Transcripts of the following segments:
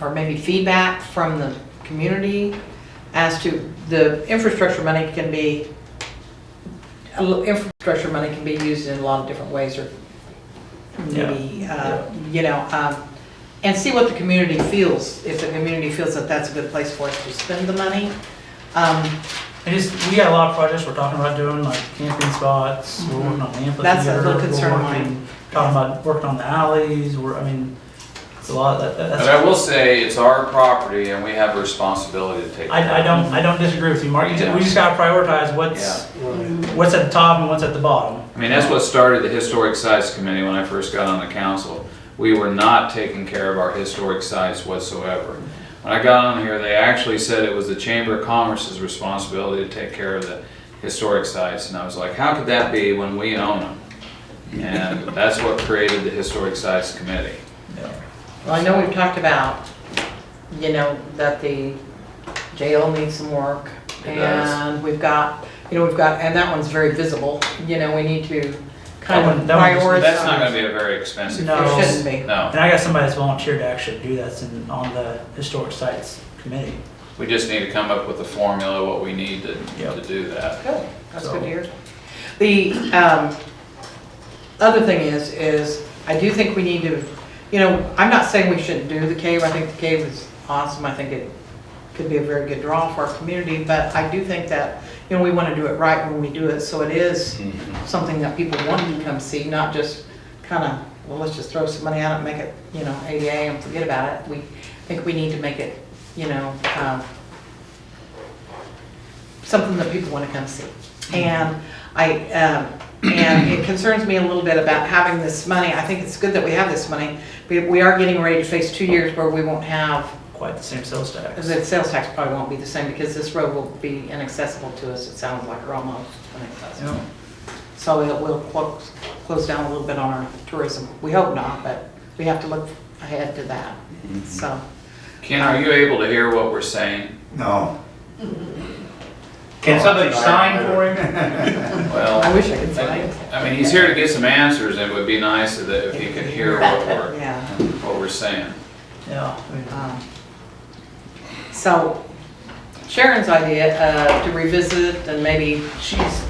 or maybe feedback from the community as to, the infrastructure money can be, a lo- infrastructure money can be used in a lot of different ways, or Yeah. maybe, uh, you know, um, and see what the community feels, if the community feels that that's a good place for us to spend the money. Um, I just, we got a lot of projects we're talking about doing, like camping spots, we're working on the amphitheater. Mm-hmm. That's a little we're concern of working- mine. Talking about working on the alleys, we're, I mean, it's a lot, that, But I that's, will say, it's our property and we have a responsibility to take. I, I don't, I don't disagree with you, Mark, You ju- we just gotta prioritize what's, Mm-hmm. what's at the top and what's at the bottom. I mean, that's what started the Historic Sites Committee when I first got on the council. We were not taking care of our historic sites whatsoever. When I got on here, they actually said it was the Chamber of Commerce's responsibility to take care of the historic sites. And I was like, how could that be when we own them? And that's what created the Historic Sites Committee. Yeah. Well, I know we've talked about, you know, that the jail needs some work. It does. And we've got, you know, we've got, and that one's very visible, you know, we need to kind That of one- that one prioritize. just- That's not gonna be a very expensive. No. It shouldn't be. No, And I got somebody that's volunteered to actually do that in, on the historic sites committee. we just need to come up with a formula, what we need to, Yep. to do that. Good, that's good So- to hear. The um, other thing is, is I do think we need to, you know, I'm not saying we shouldn't do the cave, I think the cave is awesome, I think it could be a very good draw for our community, but I do think that, you know, we want to do it right when we do it, so it is something that people want to come see, not just kind of, well, let's just throw some money at it, make it, you know, ADA and forget about it. We, I think we need to make it, you know, um, something that people want to come see. And I, um, and it concerns me a little bit about having this money. I think it's good that we have this money. We, we are getting ready to face two years where we won't have, Quite the same sales tax. the sales tax probably won't be the same because this road will be inaccessible to us, it sounds like, or almost inaccessible. Yeah. So it will close, close down a little bit on our tourism. We hope not, but we have to look ahead to that, so. Ken, are you able to hear what we're saying? No. Can somebody sign for him? I Well, wish I could say. I mean, he's here to get some answers, and it would be nice if if he could hear what we're, Yeah. what we're saying. Yeah, I mean, um, So Sharon's idea uh, to revisit and maybe she's,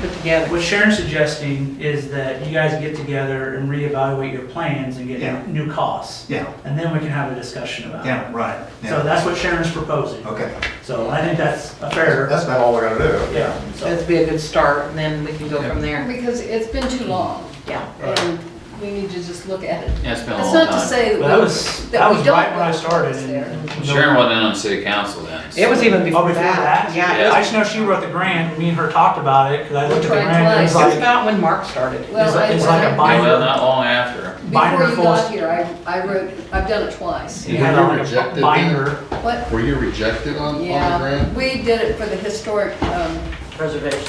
put together. What Sharon's suggesting is that you guys get together and reevaluate your plans and Yeah. get new costs. Yeah, And then we can have a discussion about it. yeah, right. So Yeah. that's what Sharon's proposing. Okay. So I think that's a fair, That's about all we're gonna do. yeah. so- That'd be a good start and then we can go from there. Because it's been too long, Yeah. and we need to just look at it. Yeah, it's been a That's long not to time. say But that that we- was, that that we was don't right when I want started. this and- there. and- Sharon wasn't on city council then. so- It was even Oh, before before that. that? Yeah. Yeah. it- I just know she wrote the grant, me and her talked about it, because I looked at the Tried grant, and it was It's like, about when Mark started. it's Well, like- I- it's like a I- Yeah, well, uh, binder. not long after. binder Before you full got of- here, I, I wrote, I've done it twice. You had it on Rejected like a it. binder. What, Were you rejected on, on the yeah, grant? we did it for the historic, um.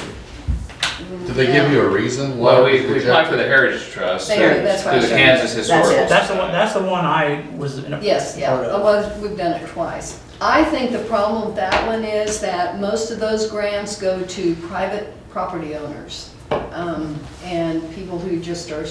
Preservation. Did they give you a reason why Well, it was we, we applied for the rejected? Heritage Trust There, that's through what the I said. Kansas Historical. That's the one, Society. that's the one I was in a part of. Yes, yeah, well, we've done it twice. I think the problem with that one is that most of those grants go to private property owners. um, And people who just are,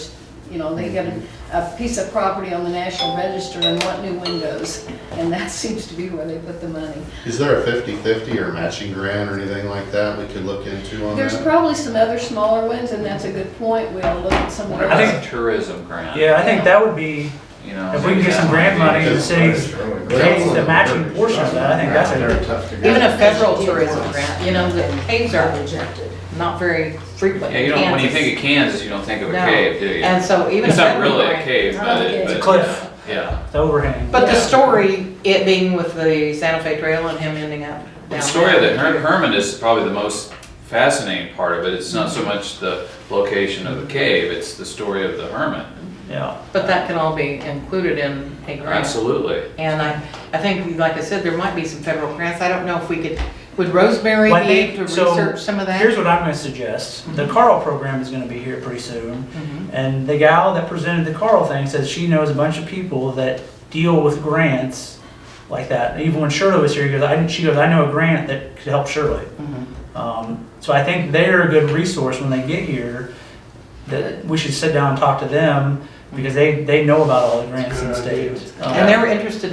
you know, they get a- a piece of property on the National Register and want new windows. And that seems to be where they put the money. Is there a fifty-fifty or matching grant or anything like that we could look into on There's that? probably some other smaller ones, and that's a good point. We'll look at some of What those. I about think- the tourism grant? Yeah, I think that would be, You know. if we can maybe get some that grant might money, the city's pays the matching portion of that, I think that's a, Even a federal tourism grant, you know, the caves are not very frequent. be- Yeah, you don't, when you Kansas. think of Kansas, you don't think of a No. cave, do you? And so even. a It's not federal really a grant- cave, but it, It's a but cliff. yeah, yeah. it's overhang. But the story, it being with the Santa Fe Trail and him ending up down The story of there. the Her- Hermit is probably the most fascinating part of it. It's not so much the location of the cave, it's the story of the hermit. Yeah, But that can all be included in a grant. Absolutely. And I, I think, like I said, there might be some federal grants. I don't know if we could, would Rosemary Well, I be think- able to so research some of that? here's what I'm gonna suggest, the Carl program is gonna be here pretty soon, Mhm. and the gal that presented the Carl thing says she knows a bunch of people that deal with grants like that, And even when Shirley was here, he goes, I, she goes, I know a grant that could help Shirley. Mhm. Um, so I think they're a good resource when they get here, that we should sit down and talk to them, because they, they know about all the grants in the state. Um, And they were interested